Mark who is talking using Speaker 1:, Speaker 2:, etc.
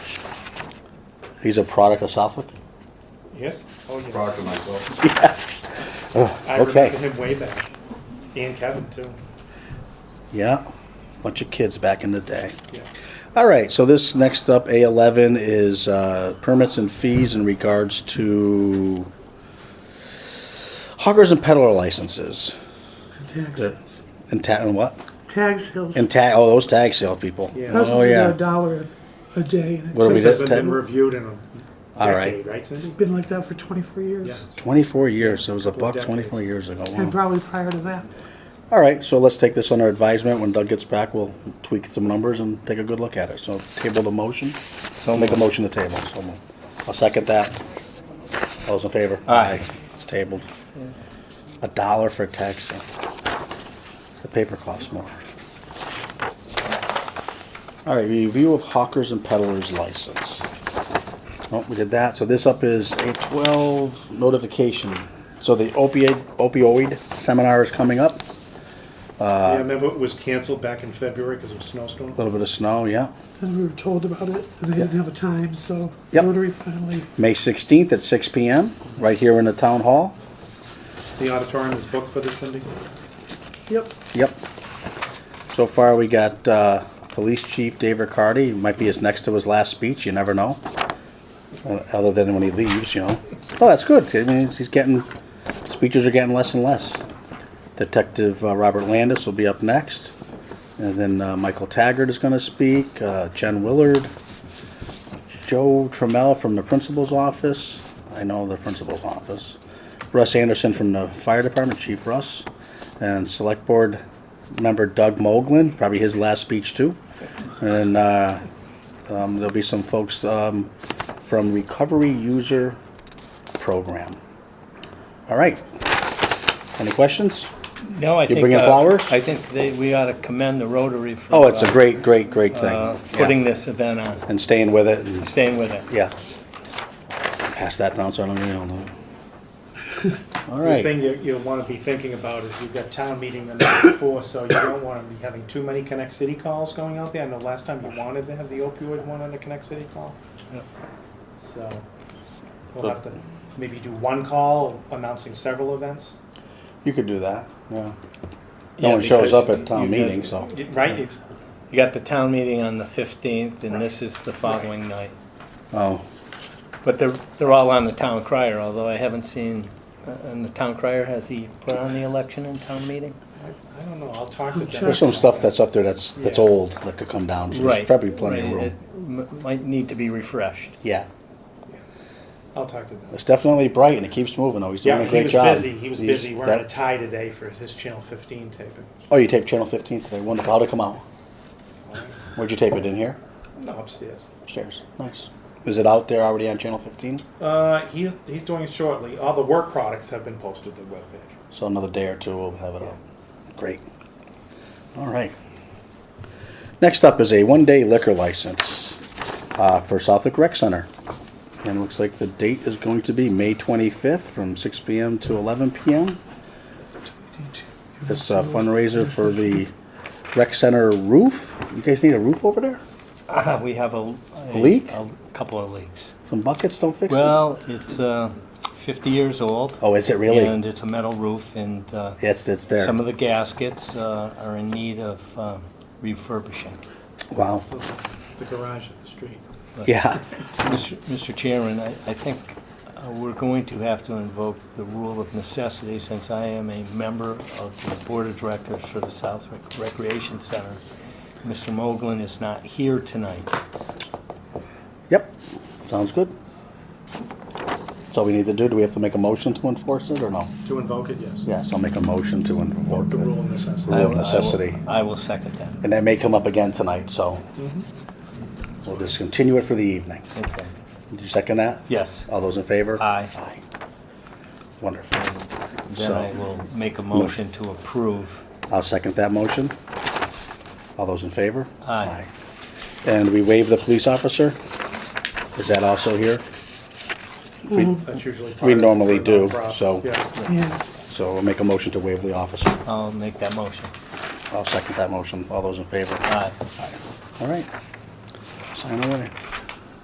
Speaker 1: He's a product of Suffolk?
Speaker 2: Yes, oh
Speaker 3: Proud of
Speaker 2: yes.
Speaker 3: myself.
Speaker 2: I
Speaker 1: Oh, Okay.
Speaker 2: remember him way back. He and Kevin too.
Speaker 1: Yeah, bunch of kids back in the day.
Speaker 2: Yeah.
Speaker 1: All right, so this next up, A11, is uh, permits and fees in regards to hawkers and peddler licenses.
Speaker 4: Tax,
Speaker 1: And ta, and what?
Speaker 4: tax sales.
Speaker 1: And tag, oh, those tag sale people.
Speaker 2: Yeah.
Speaker 4: That's
Speaker 1: Oh,
Speaker 4: only a
Speaker 1: yeah.
Speaker 4: dollar a a day, and
Speaker 1: What do
Speaker 4: it's
Speaker 1: we
Speaker 2: This
Speaker 1: got,
Speaker 2: hasn't
Speaker 1: Ted?
Speaker 2: been reviewed in a
Speaker 1: All right.
Speaker 2: decade, right Cindy?
Speaker 4: been like that for twenty-four years.
Speaker 2: Yeah.
Speaker 1: 24 years, it was a
Speaker 2: Couple of
Speaker 1: buck 24
Speaker 2: decades.
Speaker 1: years ago. Wow.
Speaker 4: And probably prior to that.
Speaker 1: All right, so let's take this under advisement. When Doug gets back, we'll tweak some numbers and take a good look at it. So table the motion. So make a motion to table. So moved. I'll second that. All those in favor? Aye. It's tabled. A dollar for tax. The paper costs more. All right, review of hawkers and peddlers license. Well, we did that. So this up is a twelve notification. So the opioid opioid seminar is coming up. Uh,
Speaker 2: Yeah, remember it was canceled back in February because of snowstorm?
Speaker 1: A little bit of snow, yeah.
Speaker 4: And we were told about it, and they didn't have a time, so
Speaker 1: Yep.
Speaker 4: Rotary finally,
Speaker 1: May 16th at 6 PM, right here in the town hall.
Speaker 2: The auditorium is booked for this, Cindy?
Speaker 4: yep,
Speaker 1: Yep. So far, we got uh, Police Chief Dave Riccardi. It Might be his next to his last speech, you never know. Uh, Other than when he leaves, you know. Oh, that's good. I mean, he's getting, speeches are getting less and less. Detective uh, Robert Landis will be up next. And then uh, Michael Taggart is going to speak, uh, Jen Willard, Joe Trammell from the principal's office. I know the principal's office. Russ Anderson from the fire department, Chief Russ. And select board member Doug Moglen, probably his last speech too. And uh, um, there'll be some folks um, from Recovery User Program. All right. Any questions?
Speaker 5: No, I
Speaker 1: You
Speaker 5: think.
Speaker 1: bringing
Speaker 5: uh,
Speaker 1: flowers?
Speaker 5: I think they, we ought to commend the Rotary for.
Speaker 1: Oh, it's a
Speaker 5: uh,
Speaker 1: great, great, great thing.
Speaker 5: uh,
Speaker 1: Yeah.
Speaker 5: Putting this event on,
Speaker 1: And staying with it and
Speaker 5: staying with it.
Speaker 1: Yeah. Pass that down so I don't really don't know. All
Speaker 2: The
Speaker 1: right.
Speaker 2: thing you, you'll want to be thinking about is you've got town meeting the night before, so you don't want to be having too many Connect City calls going out there. I know last time you wanted to have the opioid one on the Connect City call. So we'll have to maybe do one call announcing several events,
Speaker 1: You could do that, yeah. No
Speaker 5: Yeah,
Speaker 1: one shows up
Speaker 5: because
Speaker 1: at town
Speaker 5: you got-
Speaker 1: meeting, so.
Speaker 2: Y- right? It's,
Speaker 5: You got the town meeting on the fifteenth, and this is the following night.
Speaker 1: Oh,
Speaker 5: But they're, they're all on the town crier, although I haven't seen, uh, and the town crier, has he put on the election and town meeting?
Speaker 2: I don't know, I'll talk to
Speaker 4: Sure.
Speaker 2: them.
Speaker 1: there's some stuff that's up there that's, that's
Speaker 2: Yeah.
Speaker 1: old that could come down, so there's
Speaker 5: Right.
Speaker 1: probably plenty of
Speaker 5: right,
Speaker 1: room.
Speaker 5: it m- Might need to be refreshed.
Speaker 1: Yeah,
Speaker 2: I'll talk to them.
Speaker 1: it's definitely bright and it keeps moving though, he's doing
Speaker 2: Yeah,
Speaker 1: a
Speaker 2: he
Speaker 1: great
Speaker 2: was
Speaker 1: job.
Speaker 2: busy, he was
Speaker 1: He's-
Speaker 2: busy
Speaker 1: that-
Speaker 2: wearing a tie today for his Channel 15 taping.
Speaker 1: Oh, you taped Channel 15 today, wonderful, how'd it come out? Where'd you tape it, in here?
Speaker 2: No, upstairs.
Speaker 1: Upstairs, nice. Is it out there already on Channel 15?
Speaker 2: Uh, he, he's doing it shortly. All the work products have been posted to the webpage.
Speaker 1: So another day or two, we'll have it up. Great. All right. Next up is a one-day liquor license uh, for Southwick Rec Center. And it looks like the date is going to be May 25th from 6 PM to 11 PM.
Speaker 4: we need to.
Speaker 1: This uh, fundraiser for the rec center roof. You guys need a roof over there?
Speaker 5: We have a. a-
Speaker 1: Ah. Leak?
Speaker 5: A couple of leaks.
Speaker 1: Some buckets don't fix it?
Speaker 5: Well, it's uh, 50 years old.
Speaker 1: Oh, is it really?
Speaker 5: And it's a metal roof, and uh,
Speaker 1: It's, it's there.
Speaker 5: some of the gaskets uh, are in need of um, refurbishing.
Speaker 1: Wow.
Speaker 2: The garage at the street.
Speaker 5: But,
Speaker 1: Yeah.
Speaker 5: Mr. Mr. Chairman, I I think uh, we're going to have to invoke the rule of necessity since I am a member of the Board of Directors for the South Rec- Recreation Center. Mr. Moglen is not here tonight.
Speaker 1: Yep. Sounds good. That's all we need to do. Do we have to make a motion to enforce it or no?
Speaker 2: To invoke it, yes.
Speaker 1: Yes, I'll make a motion to invoke
Speaker 2: The rule
Speaker 1: it.
Speaker 2: of necessity.
Speaker 1: Rule of
Speaker 5: I will- I will-
Speaker 1: necessity.
Speaker 5: I will second that.
Speaker 1: And that may come up again tonight, so
Speaker 5: Mm-hmm.
Speaker 1: we'll just continue it for the evening.
Speaker 5: Okay.
Speaker 1: Did you second that?
Speaker 5: Yes.
Speaker 1: All those in favor?
Speaker 5: Aye.
Speaker 1: Aye. Wonderful.
Speaker 5: Then I will make a motion to approve.
Speaker 1: I'll second that motion. All those in favor?
Speaker 5: Aye.
Speaker 1: And we waive the police officer? Is that also here?
Speaker 2: That's usually part
Speaker 1: We
Speaker 2: of it
Speaker 1: normally
Speaker 2: for
Speaker 1: do,
Speaker 2: nonprofit.
Speaker 1: so-
Speaker 2: Yeah.
Speaker 4: Yeah,
Speaker 1: So we'll make a motion to waive the officer.
Speaker 5: I'll make that motion.
Speaker 1: I'll second that motion. All those in favor?
Speaker 5: Aye.
Speaker 1: All right. Sign away.